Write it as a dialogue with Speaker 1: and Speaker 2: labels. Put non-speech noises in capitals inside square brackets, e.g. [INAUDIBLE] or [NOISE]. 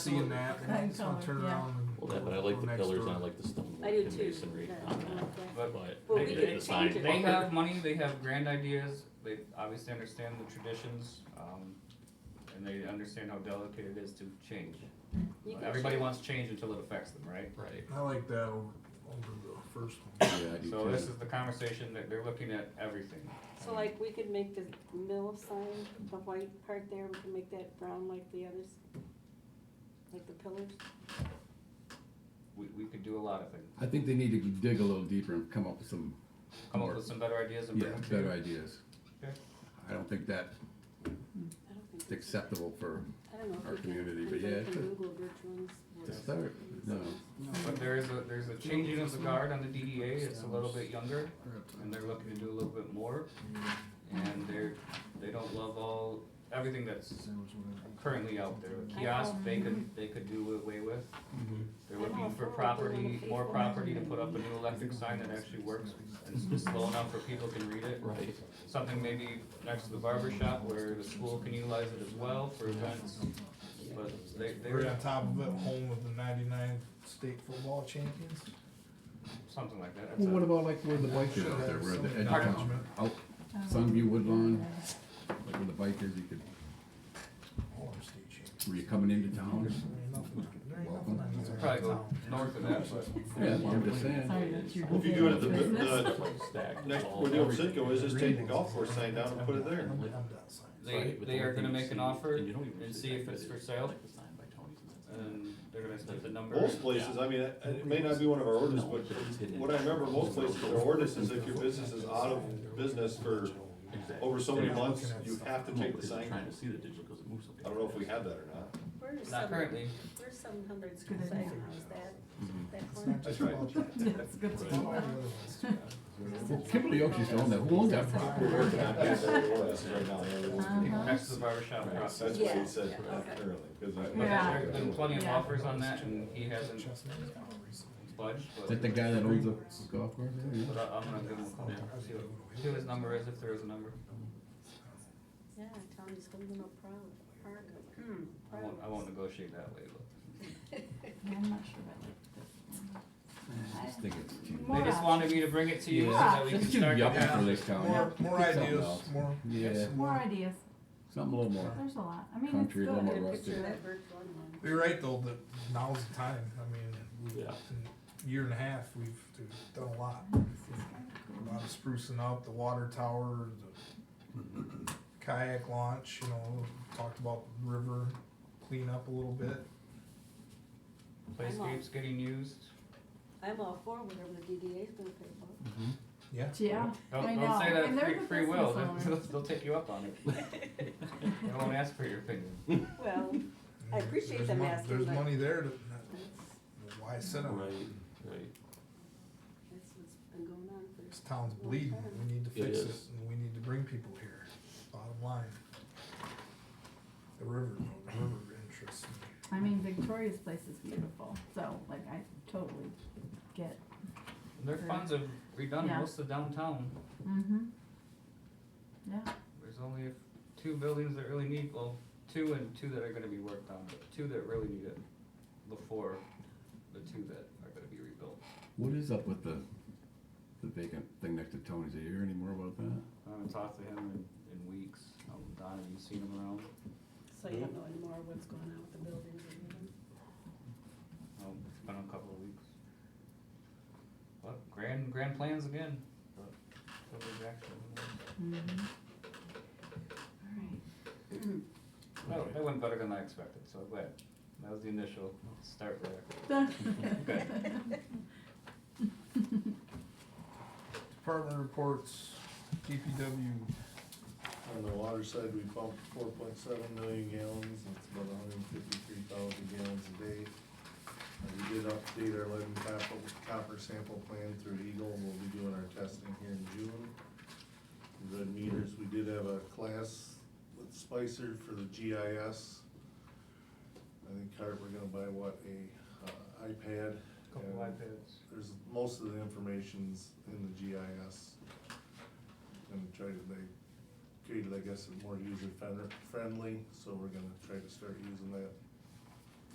Speaker 1: Seeing that, and I just wanna turn around and.
Speaker 2: Well, that, but I
Speaker 1: go
Speaker 2: like the
Speaker 1: next
Speaker 2: pillars
Speaker 1: door.
Speaker 2: and I like the stone
Speaker 3: I
Speaker 2: work
Speaker 3: do
Speaker 2: and
Speaker 3: too.
Speaker 2: masonry
Speaker 3: Yeah,
Speaker 2: on
Speaker 3: I
Speaker 2: that,
Speaker 3: like that.
Speaker 2: but.
Speaker 3: Well,
Speaker 2: I
Speaker 3: we
Speaker 2: agree,
Speaker 3: could
Speaker 2: it's fine.
Speaker 3: change it.
Speaker 4: They have money, they have grand ideas, they obviously understand the traditions, um, and they understand how delicate it is to change.
Speaker 3: You can
Speaker 4: Everybody
Speaker 3: change.
Speaker 4: wants change until it affects them, right?
Speaker 2: Right.
Speaker 1: I like that over, over the first one.
Speaker 2: Yeah, I do
Speaker 4: So
Speaker 2: too.
Speaker 4: this is the conversation that they're looking at everything.
Speaker 3: So like, we could make the mill sign, the white part there, we can make that brown like the others, like the pillars.
Speaker 4: We, we could do a lot of things,
Speaker 5: I think they need to dig a little deeper and come up with some
Speaker 4: come up
Speaker 5: more-
Speaker 4: with some better ideas and
Speaker 5: yeah,
Speaker 4: bring them to you.
Speaker 5: better ideas.
Speaker 4: Okay.
Speaker 5: I don't think that's
Speaker 3: I don't think. that's-
Speaker 5: acceptable for
Speaker 3: I don't know. if
Speaker 5: our
Speaker 3: we can-
Speaker 5: community, but
Speaker 3: anybody
Speaker 5: yeah,
Speaker 3: can
Speaker 5: it could.
Speaker 3: Google which ones were-
Speaker 5: to start. No,
Speaker 4: But there is a, there's a changing of the guard on the DDA, it's a little bit younger, and they're looking to do a little bit more, and they're, they don't love all, everything that's currently out there. A Kiosk, they could, they could do away with.
Speaker 2: Mm-hmm.
Speaker 4: They're looking for property, more property to put up a new electric sign that actually works and is slow enough where people can read it.
Speaker 2: Right.
Speaker 4: Something maybe next to the barber shop where the school can utilize it as well for events, but they,
Speaker 1: We're
Speaker 4: they're,
Speaker 1: on top of it, home of the ninety-nine state football champions.
Speaker 4: something like that. That's
Speaker 5: well, what
Speaker 4: a-
Speaker 5: about like where the bike is out there, where the edge
Speaker 4: Pardon?
Speaker 5: of out,
Speaker 6: Um, [LAUGHS]
Speaker 5: Sunview Woodlawn, like where the bike is, you could,
Speaker 1: All our state champions.
Speaker 5: where you're coming into town.
Speaker 1: There ain't nothing- there ain't nothing
Speaker 5: Welcome.
Speaker 1: on these
Speaker 4: Probably go
Speaker 1: towns.
Speaker 4: north of that, but.
Speaker 5: Yeah, I'm just saying.
Speaker 7: Well, if you do it at the, the
Speaker 2: Stack
Speaker 7: next,
Speaker 2: all-
Speaker 7: where the old
Speaker 2: everything.
Speaker 7: Citgo is, just take the golf course sign down and put it there.
Speaker 1: I'm- I'm done signing.
Speaker 4: They,
Speaker 2: Right, but
Speaker 4: they
Speaker 2: the
Speaker 4: are
Speaker 2: only
Speaker 4: gonna
Speaker 2: thing
Speaker 4: make
Speaker 2: you
Speaker 4: an
Speaker 2: see-
Speaker 4: offer
Speaker 2: and you don't even
Speaker 4: and
Speaker 2: see
Speaker 4: see
Speaker 2: that,
Speaker 4: if
Speaker 2: but
Speaker 4: it's for
Speaker 2: it's
Speaker 4: sale,
Speaker 2: like the sign by Tony's and that's it.
Speaker 4: and they're gonna put the number.
Speaker 7: Most places, I mean, it it may not be one of
Speaker 8: Uh,
Speaker 7: our ordinances,
Speaker 2: No, but it's
Speaker 7: but
Speaker 2: hidden.
Speaker 7: what I remember most places, their ordinance is if your business is out of business for over so many months, you have to
Speaker 2: No,
Speaker 7: take the
Speaker 2: because they're
Speaker 7: sign.
Speaker 2: Trying to
Speaker 7: I
Speaker 2: see the digital because it moves something.
Speaker 7: don't know if we have that or not.
Speaker 3: Where's
Speaker 4: Not
Speaker 3: seven,
Speaker 4: currently, Mm.
Speaker 3: where's seven hundred school site, how's that,
Speaker 2: Mm-hmm.
Speaker 3: that
Speaker 1: It's
Speaker 3: corner?
Speaker 1: not just
Speaker 7: That's right.
Speaker 1: about that.
Speaker 6: That's good to
Speaker 1: All the
Speaker 6: know.
Speaker 1: other ones, too.
Speaker 5: Well, Kimberly Oaks used to own that, who owned that
Speaker 7: [LAUGHS]
Speaker 5: property?
Speaker 7: We're working on getting that ordinance right now. They're working
Speaker 6: Uh-huh.
Speaker 7: on it.
Speaker 4: next to the barber shop across.
Speaker 7: That's what he said apparently, because I.
Speaker 6: Yeah.
Speaker 4: There's been plenty of
Speaker 6: Yeah.
Speaker 4: offers on that and he hasn't
Speaker 1: Chestnut is kind of recently.
Speaker 4: budged,
Speaker 5: Is
Speaker 4: but,
Speaker 5: that the guy that owns the golf course? there? Yeah.
Speaker 4: but I- I'm gonna give him a call, see what, see what his number is, if there is a number.
Speaker 3: Yeah, Tony's holding up proud, proud, hmm,
Speaker 4: I
Speaker 3: proud.
Speaker 4: won't, I won't negotiate that way, but.
Speaker 6: Yeah, I'm not sure about that.
Speaker 5: I just think it's too.
Speaker 6: More
Speaker 4: They just wanted me to bring it to you so that we can
Speaker 5: It's too
Speaker 4: start.
Speaker 5: yuppie
Speaker 4: to-
Speaker 5: for this town.
Speaker 1: More, more
Speaker 5: Pick something
Speaker 1: ideas,
Speaker 5: else.
Speaker 1: more.
Speaker 5: Yeah,
Speaker 6: More ideas,
Speaker 5: something a little more.
Speaker 6: there's a lot, I mean, it's
Speaker 5: Country, a little more
Speaker 6: good.
Speaker 3: Get a
Speaker 5: rustic.
Speaker 3: picture of that bird going on.
Speaker 1: You're right though, that now's the time, I mean, we-
Speaker 2: Yeah.
Speaker 1: in a year and a half, we've we've done a lot. A lot of sprucing up, the water tower, the kayak launch, you know, talked about the river cleanup a little bit.
Speaker 4: Playscape's getting used.
Speaker 3: I'm all for whatever the DDA's gonna pay for.
Speaker 1: Yeah.
Speaker 6: Yeah, [LAUGHS] I
Speaker 4: Don't,
Speaker 6: know.
Speaker 4: don't say that
Speaker 6: And they're
Speaker 4: free,
Speaker 6: the
Speaker 4: free will, [LAUGHS]
Speaker 6: business
Speaker 4: they'll,
Speaker 6: owners.
Speaker 4: they'll take you up on
Speaker 6: [LAUGHS]
Speaker 4: it. They won't ask for your opinion.
Speaker 3: [LAUGHS] Well, I appreciate
Speaker 1: There's
Speaker 3: them
Speaker 1: mon-
Speaker 3: asking,
Speaker 1: There's
Speaker 3: but-
Speaker 1: money there to,
Speaker 3: that's,
Speaker 1: why sit on
Speaker 2: Right,
Speaker 1: it?
Speaker 2: right.
Speaker 3: that's what's been going on for.
Speaker 1: This town's bleeding, we need to
Speaker 2: It
Speaker 1: fix it,
Speaker 2: is.
Speaker 1: and we need to bring people here, bottom line. The river, the river interests me.
Speaker 6: I mean, Victoria's place is beautiful, so like, I totally get,
Speaker 4: Their funds have redone
Speaker 6: Yeah.
Speaker 4: most of downtown.
Speaker 6: mm-hmm. Yeah,
Speaker 4: There's only two buildings that really need, well, two and two that are gonna be worked on, but two that really need it before the two that are gonna be rebuilt.
Speaker 5: What is up with the the vacant thing next to Tony's? Are you hear any more about that?
Speaker 4: I haven't talked to him in, in weeks. Um, Don, have you seen him around?
Speaker 3: So you don't know anymore what's going on with the buildings and everything.
Speaker 4: Um, it's been a couple of weeks. But grand, grand plans again, but what was actually,
Speaker 6: mm-hmm. Alright.
Speaker 4: no, that went better than I expected, so I'm glad. That was the initial start there.
Speaker 6: [LAUGHS]
Speaker 5: [LAUGHS]
Speaker 1: Department reports, DPW,
Speaker 8: On the water side, we pumped four point seven million gallons, that's about hundred and fifty-three thousand gallons a day. Uh, we did update our lead and copper, copper sample plan through Eagle, and we'll be doing our testing here in June. The meters, we did have a class with Spicer for the GIS. I think, Cart, we're gonna buy what, a uh, iPad?
Speaker 4: Couple
Speaker 8: and-
Speaker 4: iPads.
Speaker 8: there's, most of the information's in the GIS. And try to make, create, I guess, it more user friendly, so we're gonna try to start using that